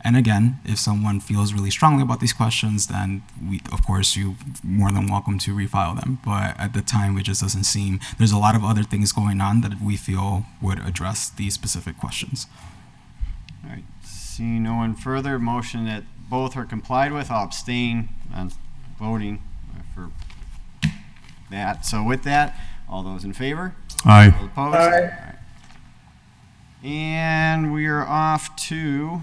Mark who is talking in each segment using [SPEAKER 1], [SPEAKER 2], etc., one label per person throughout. [SPEAKER 1] And again, if someone feels really strongly about these questions, then we, of course, you more than welcome to refile them. But at the time, it just doesn't seem there's a lot of other things going on that we feel would address these specific questions.
[SPEAKER 2] All right, seeing no one further, motion that both are complied with, I'll abstain on voting for that. So with that, all those in favor?
[SPEAKER 3] Aye.
[SPEAKER 2] All opposed?
[SPEAKER 4] Aye.
[SPEAKER 2] All right. And we are off to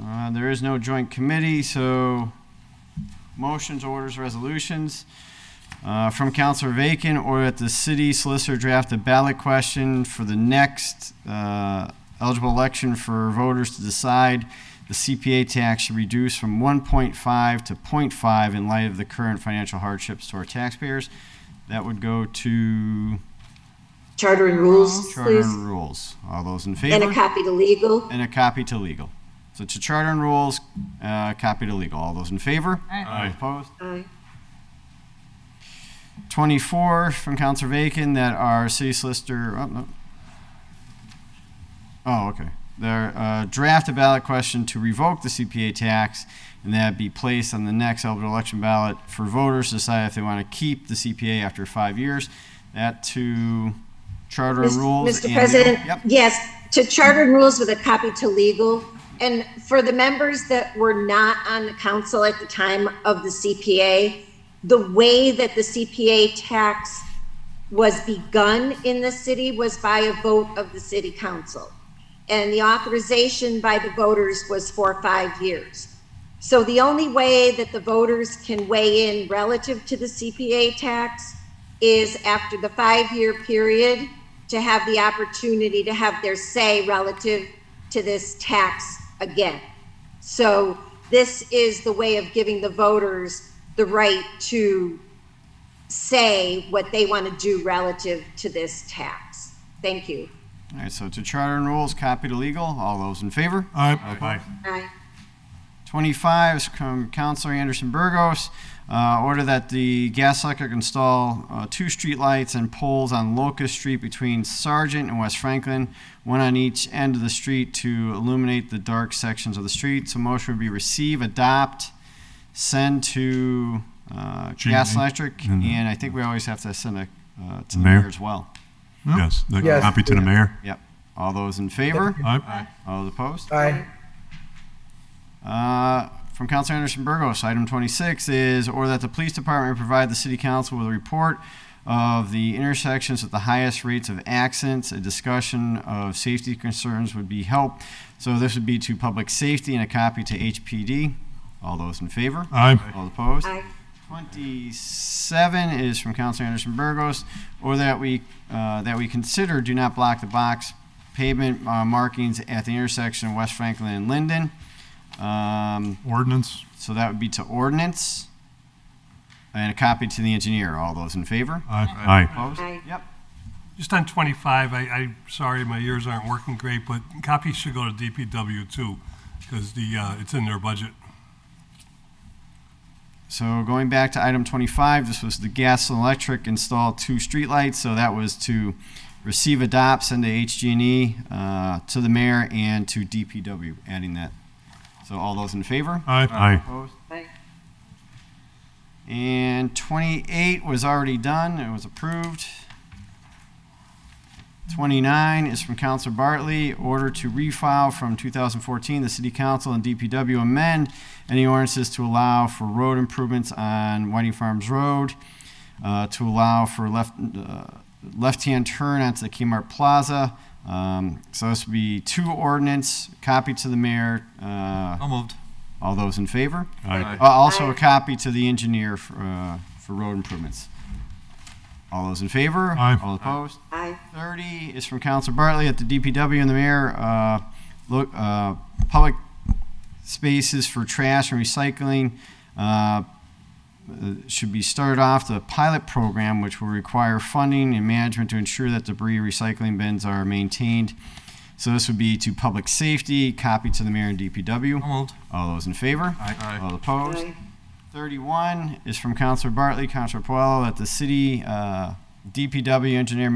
[SPEAKER 2] Uh, There is no joint committee, so motions, orders, resolutions. Uh, From Counselor Vacan, order that the city solicitor draft a ballot question for the next uh, eligible election for voters to decide the CPA tax should reduce from 1.5 to 0.5 in light of the current financial hardships to our taxpayers. That would go to
[SPEAKER 4] Charter and rules,
[SPEAKER 2] Charter
[SPEAKER 4] please,
[SPEAKER 2] and Rules. All those in favor?
[SPEAKER 4] and a copy to legal.
[SPEAKER 2] And a copy to legal. So to charter and rules, uh, copy to legal. All those in favor? Aye. Opposed?
[SPEAKER 4] Aye.
[SPEAKER 2] 24 from Counselor Vacan that our city solicitor, oh, no. Oh, okay. Their, uh, draft a ballot question to revoke the CPA tax and that be placed on the next eligible election ballot for voters to decide if they want to keep the CPA after five years. That to charter and
[SPEAKER 4] Mis-
[SPEAKER 2] rules.
[SPEAKER 4] Mr.
[SPEAKER 2] and-
[SPEAKER 4] President,
[SPEAKER 2] Yep.
[SPEAKER 4] yes, to charter and rules with a copy to legal. And for the members that were not on the council at the time of the CPA, the way that the CPA tax was begun in the city was by a vote of the city council. And the authorization by the voters was for five years. So the only way that the voters can weigh in relative to the CPA tax is after the five-year period to have the opportunity to have their say relative to this tax again. So this is the way of giving the voters the right to say what they want to do relative to this tax. Thank you.
[SPEAKER 2] All right, so to charter and rules, copy to legal. All those in favor?
[SPEAKER 3] Aye.
[SPEAKER 4] Aye.
[SPEAKER 2] 25 is from Counselor Anderson Burgos. Uh, order that the gas electric install uh, two streetlights and poles on Locust Street between Sargent and West Franklin, one on each end of the street to illuminate the dark sections of the street. So motion would be receive, adopt, send to uh, gas
[SPEAKER 3] Jamie.
[SPEAKER 2] electric,
[SPEAKER 3] Mhm.
[SPEAKER 2] and I think we always have to send a, uh, to the
[SPEAKER 3] Mayor.
[SPEAKER 2] mayor as well.
[SPEAKER 3] Yes. The
[SPEAKER 5] Yes.
[SPEAKER 3] Copy to the mayor.
[SPEAKER 2] Yep. All those in favor?
[SPEAKER 3] Aye.
[SPEAKER 2] All those opposed?
[SPEAKER 5] Aye.
[SPEAKER 2] Uh, From Counselor Anderson Burgos, item 26 is, or that the police department provide the city council with a report of the intersections with the highest rates of accidents. A discussion of safety concerns would be helped. So this would be to public safety and a copy to HPD. All those in favor?
[SPEAKER 3] Aye.
[SPEAKER 2] All opposed?
[SPEAKER 4] Aye.
[SPEAKER 2] 27 is from Counselor Anderson Burgos, or that we, uh, that we consider do not block the box pavement uh, markings at the intersection of West Franklin and Linden. Um,
[SPEAKER 3] Ordinance.
[SPEAKER 2] So that would be to ordinance. And a copy to the engineer. All those in favor?
[SPEAKER 3] Aye. Aye.
[SPEAKER 2] Opposed?
[SPEAKER 4] Aye.
[SPEAKER 2] Yep.
[SPEAKER 6] Just on 25, I, I'm sorry, my ears aren't working great, but copies should go to DPW too, because the, uh, it's in their budget.
[SPEAKER 2] So going back to item 25, this was the gas and electric install two streetlights. So that was to receive, adopt, send to HG&E, uh, to the mayor and to DPW, adding that. So all those in favor?
[SPEAKER 3] Aye.
[SPEAKER 2] Opposed?
[SPEAKER 4] Aye.
[SPEAKER 2] And 28 was already done, it was approved. 29 is from Counselor Bartley, order to refile from 2014, the City Council and DPW amend any ordinances to allow for road improvements on Whiting Farms Road, uh, to allow for left, uh, left-hand turn onto the Kmart Plaza. Um, So this would be two ordinance, copy to the mayor. uh,
[SPEAKER 7] moved.
[SPEAKER 2] All those in favor?
[SPEAKER 3] Aye.
[SPEAKER 2] Uh, Also, a copy to the engineer for, uh, for road improvements. All those in favor?
[SPEAKER 3] Aye.
[SPEAKER 2] All opposed?
[SPEAKER 4] Aye.
[SPEAKER 2] 30 is from Counselor Bartley at the DPW and the mayor. uh, Look, uh, public spaces for trash and recycling uh, should be started off the pilot program, which will require funding and management to ensure that debris recycling bins are maintained. So this would be to public safety, copy to the mayor and DPW.
[SPEAKER 7] moved.
[SPEAKER 2] All those in favor?
[SPEAKER 7] Aye.
[SPEAKER 2] All opposed? 31 is from Counselor Bartley, Counselor Puelo, that the city uh, DPW engineer